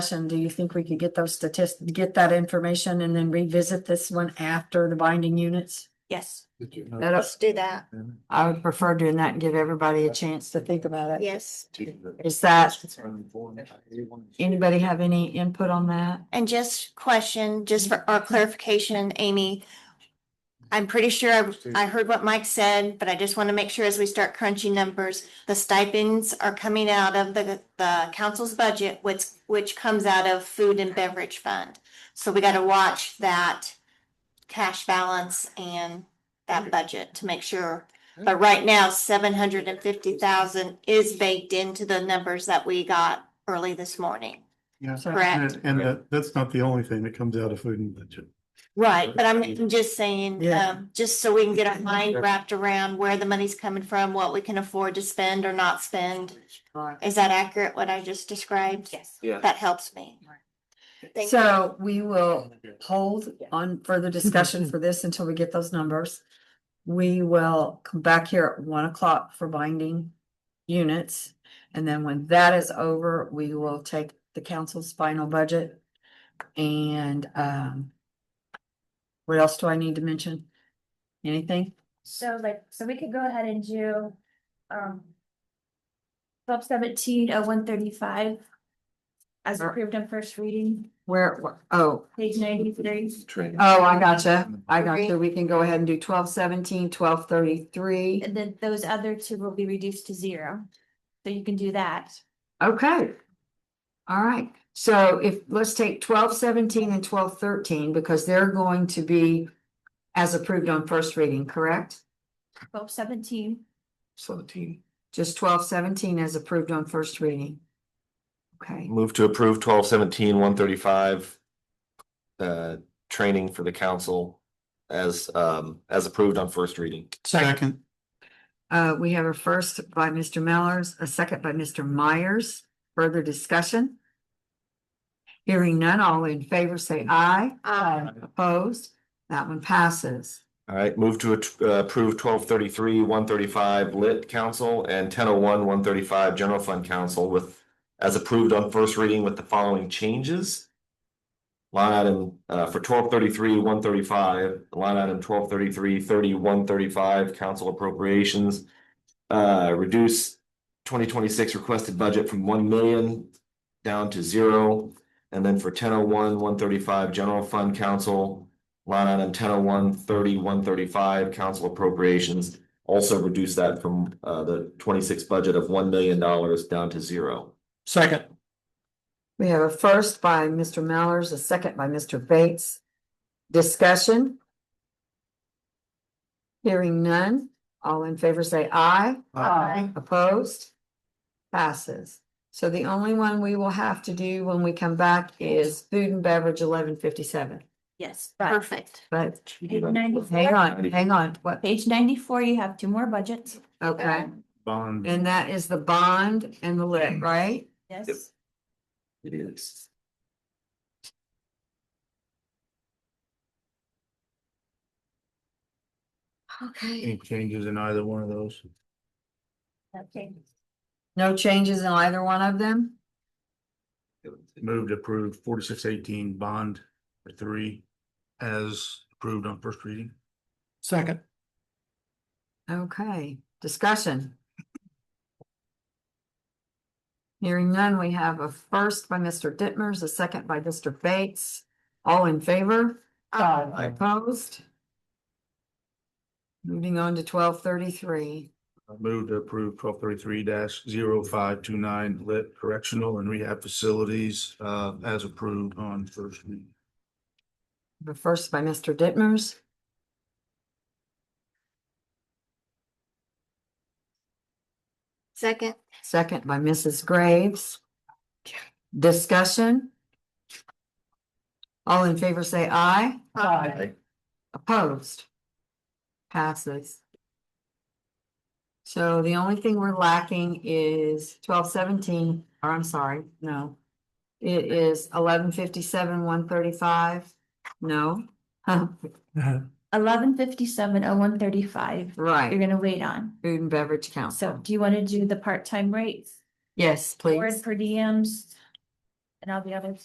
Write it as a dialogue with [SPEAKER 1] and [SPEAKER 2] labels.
[SPEAKER 1] session, do you think we could get those statistics, get that information and then revisit this one after the binding units?
[SPEAKER 2] Yes,
[SPEAKER 3] Did you know?
[SPEAKER 1] That,
[SPEAKER 2] let's do that.
[SPEAKER 1] I would prefer doing that and give everybody a chance to think about it.
[SPEAKER 2] Yes.
[SPEAKER 1] Is that, anybody have any input on that?
[SPEAKER 2] And just question, just for our clarification, Amy. I'm pretty sure I- I heard what Mike said, but I just want to make sure as we start crunching numbers, the stipends are coming out of the, the council's budget, which, which comes out of food and beverage fund. So we got to watch that cash balance and that budget to make sure. But right now, seven hundred and fifty thousand is baked into the numbers that we got early this morning.
[SPEAKER 3] Yeah.
[SPEAKER 1] So-
[SPEAKER 2] Correct?
[SPEAKER 3] And and that, that's not the only thing that comes out of food and budget.
[SPEAKER 2] Right, but I'm I'm just saying,
[SPEAKER 1] Yeah.
[SPEAKER 2] um, just so we can get our mind
[SPEAKER 3] Yeah.
[SPEAKER 2] wrapped around where the money's coming from, what we can afford to spend or not spend. Is that accurate, what I just described? Yes.
[SPEAKER 4] Yeah.
[SPEAKER 2] That helps me. Thank you.
[SPEAKER 1] So we will hold on further discussion for this until we get those numbers. We will come back here at one o'clock for binding units. And then when that is over, we will take the council's final budget. And um. What else do I need to mention? Anything?
[SPEAKER 5] So like, so we could go ahead and do, um. Twelve seventeen oh one thirty-five. As
[SPEAKER 1] Or-
[SPEAKER 5] approved on first reading,
[SPEAKER 1] Where, where- oh,
[SPEAKER 5] page ninety-three.
[SPEAKER 4] Train.
[SPEAKER 1] oh, I gotcha. I gotcha. We can go ahead and do twelve seventeen, twelve thirty-three.
[SPEAKER 5] And then those other two will be reduced to zero. So you can do that.
[SPEAKER 1] Okay. All right, so if, let's take twelve seventeen and twelve thirteen, because they're going to be as approved on first reading, correct?
[SPEAKER 5] Twelve seventeen,
[SPEAKER 4] Seventeen.
[SPEAKER 1] Just twelve seventeen as approved on first reading. Okay,
[SPEAKER 4] Move to approve twelve seventeen one thirty-five. Uh, training for the council as, um, as approved on first reading.
[SPEAKER 3] Second.
[SPEAKER 1] uh, we have a first by Mr. Mellors, a second by Mr. Myers. Further discussion? Hearing none, all in favor say aye.
[SPEAKER 2] Aye.
[SPEAKER 1] Opposed, that one passes.
[SPEAKER 4] All right, move to at- uh, approve twelve thirty-three one thirty-five lit council and ten oh one one thirty-five general fund council with. As approved on first reading with the following changes. Line item, uh, for twelve thirty-three one thirty-five, line item twelve thirty-three thirty one thirty-five council appropriations. Uh, reduce twenty twenty-six requested budget from one million down to zero. And then for ten oh one one thirty-five general fund council, line item ten oh one thirty one thirty five, council appropriations. Also reduce that from uh the twenty six budget of one million dollars down to zero.
[SPEAKER 3] Second.
[SPEAKER 1] We have a first by Mr. Mallers, a second by Mr. Bates. Discussion? Hearing none, all in favor say aye.
[SPEAKER 2] Aye.
[SPEAKER 1] Opposed? Passes. So the only one we will have to do when we come back is food and beverage eleven fifty-seven,
[SPEAKER 5] yes, but
[SPEAKER 2] Perfect.
[SPEAKER 1] but
[SPEAKER 5] page
[SPEAKER 1] hang
[SPEAKER 5] ninety-four,
[SPEAKER 1] on, hang on, what,
[SPEAKER 5] page ninety-four, you have two more budgets.
[SPEAKER 1] okay?
[SPEAKER 5] Um,
[SPEAKER 3] Bond.
[SPEAKER 1] And that is the bond and the lit, right?
[SPEAKER 5] Yes.
[SPEAKER 4] It is.
[SPEAKER 1] Okay.
[SPEAKER 3] Any changes in either one of those?
[SPEAKER 5] Okay.
[SPEAKER 1] No changes in either one of them?
[SPEAKER 3] Move to approve forty-six eighteen bond for three as approved on first reading. Second.
[SPEAKER 1] Okay, discussion. Hearing none, we have a first by Mr. Dittmers, a second by Mr. Bates. All in favor?
[SPEAKER 4] Aye.
[SPEAKER 1] Opposed? Moving on to twelve thirty-three.
[SPEAKER 3] Move to approve twelve thirty-three 529 lit correctional and rehab facilities uh as approved on first reading.
[SPEAKER 1] The first by Mr. Dittmers.
[SPEAKER 2] Second,
[SPEAKER 1] Second by Mrs. Graves. Discussion? All in favor say aye.
[SPEAKER 2] Aye.
[SPEAKER 1] Opposed? Passes. So the only thing we're lacking is twelve seventeen, or I'm sorry, no. It is eleven fifty-seven, one thirty-five, no, Huh,
[SPEAKER 5] Eleven fifty-seven oh one thirty-five,
[SPEAKER 1] right,
[SPEAKER 5] you're gonna wait on.
[SPEAKER 1] food and beverage
[SPEAKER 5] So
[SPEAKER 1] council.
[SPEAKER 5] do you want to do the part-time rates?
[SPEAKER 1] Yes,
[SPEAKER 5] Board
[SPEAKER 1] please,
[SPEAKER 5] per diems, and all the others.